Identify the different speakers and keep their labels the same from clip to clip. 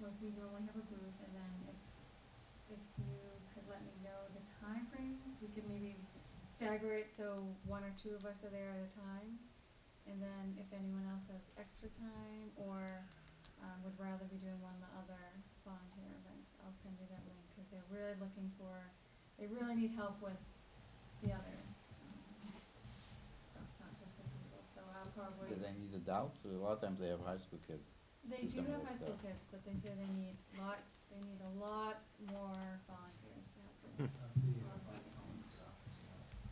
Speaker 1: we have a booth, and then if, if you could let me know the time frames, we could maybe stagger it so one or two of us are there at a time. And then if anyone else has extra time or, um, would rather be doing one of the other volunteer events, I'll send you that link, cause they're really looking for, they really need help with the other, um, stuff, not just the table, so I'll probably.
Speaker 2: Do they need adults? 'Cause A lot of times they have high school kids.
Speaker 1: They do
Speaker 2: do some
Speaker 1: have
Speaker 2: work
Speaker 1: high school
Speaker 2: there.
Speaker 1: kids, but they say they need lots, they need a lot more volunteers to help them.
Speaker 2: Hmm.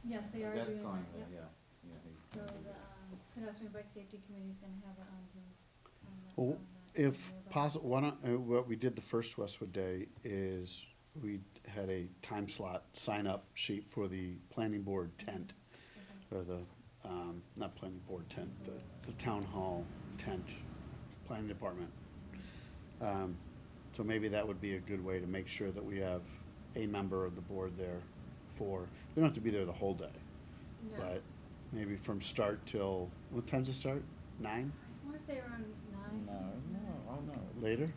Speaker 1: Yes, they are
Speaker 2: That's
Speaker 1: doing
Speaker 2: going
Speaker 1: that,
Speaker 2: there,
Speaker 1: yep.
Speaker 2: yeah. Yeah, they-
Speaker 1: So the, um, pedestrian bike safety committee's gonna have it on the, on the.
Speaker 3: Well,
Speaker 1: on the
Speaker 3: Oh, If
Speaker 1: agenda.
Speaker 3: possible, why not, uh, what we did the first Westwood Day is we had a time slot sign-up sheet for the planning board tent,
Speaker 1: Okay.
Speaker 3: or the, um, not planning board tent, the, the town hall tent, planning department. Um, So maybe that would be a good way to make sure that we have a member of the board there for, we don't have to be there the whole day,
Speaker 1: No.
Speaker 3: but maybe from start till, what time's it start? Nine,
Speaker 1: I wanna say around nine.
Speaker 2: No, no, oh, no.
Speaker 3: later?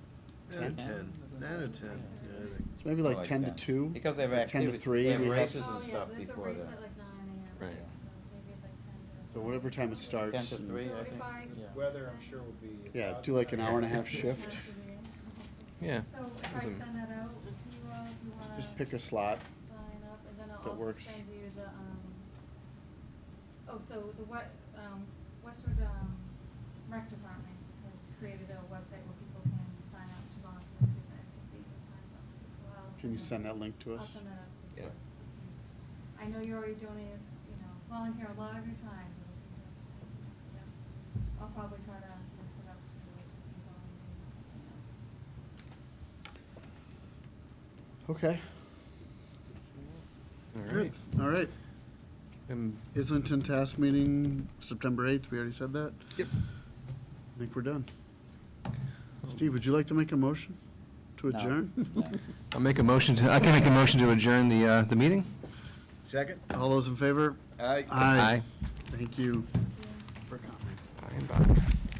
Speaker 4: Nine or
Speaker 3: Ten?
Speaker 4: ten, nine or ten, yeah, I think.
Speaker 3: So maybe
Speaker 2: I
Speaker 3: like ten to
Speaker 2: 10.
Speaker 3: two?
Speaker 2: Because they have
Speaker 3: or Ten
Speaker 2: activities.
Speaker 3: to three?
Speaker 2: They have
Speaker 3: we have-
Speaker 2: races and stuff
Speaker 1: Oh,
Speaker 2: before
Speaker 1: yeah, there's a race
Speaker 2: that.
Speaker 1: at like nine AM.
Speaker 4: Right.
Speaker 1: So maybe it's like ten to.
Speaker 3: So whatever time it starts.
Speaker 2: Ten to
Speaker 3: and-
Speaker 2: three,
Speaker 1: So
Speaker 2: I
Speaker 1: if
Speaker 2: think.
Speaker 1: I
Speaker 2: yeah.
Speaker 1: s-
Speaker 5: Weather, I'm sure will be.
Speaker 3: Yeah, do like an hour and a half shift.
Speaker 4: Yeah.
Speaker 1: So if I
Speaker 4: Doesn't-
Speaker 1: send that out to you all, if you wanna.
Speaker 3: Just pick a slot.
Speaker 1: Sign up, and then
Speaker 3: that
Speaker 1: I'll also
Speaker 3: works.
Speaker 1: send you the, um, oh, so the what, um, Westwood, um, rec department has created a website where people can sign up to volunteer for different activities and times off, too, so I'll.
Speaker 3: Can you send that link to
Speaker 1: I'll
Speaker 3: us?
Speaker 1: send that out to you.
Speaker 4: Yeah.
Speaker 1: I know you already donated, you know, volunteer a lot of your time. so I'll probably try to mix it up to people and something else.
Speaker 3: Okay.
Speaker 4: All
Speaker 3: Good.
Speaker 4: right.
Speaker 3: All right.
Speaker 4: And
Speaker 3: Islington task meeting, September eighth, we already said that?
Speaker 4: Yep.
Speaker 3: I think we're done. Steve, would you like to make a motion to
Speaker 2: No.
Speaker 3: adjourn?
Speaker 2: No.
Speaker 4: I'll make a motion to, I can make a motion to adjourn the, uh, the meeting?
Speaker 5: Second?
Speaker 3: All those in favor?
Speaker 5: Aye.
Speaker 3: Aye. Thank you for coming.
Speaker 4: Aye. Bye and bye.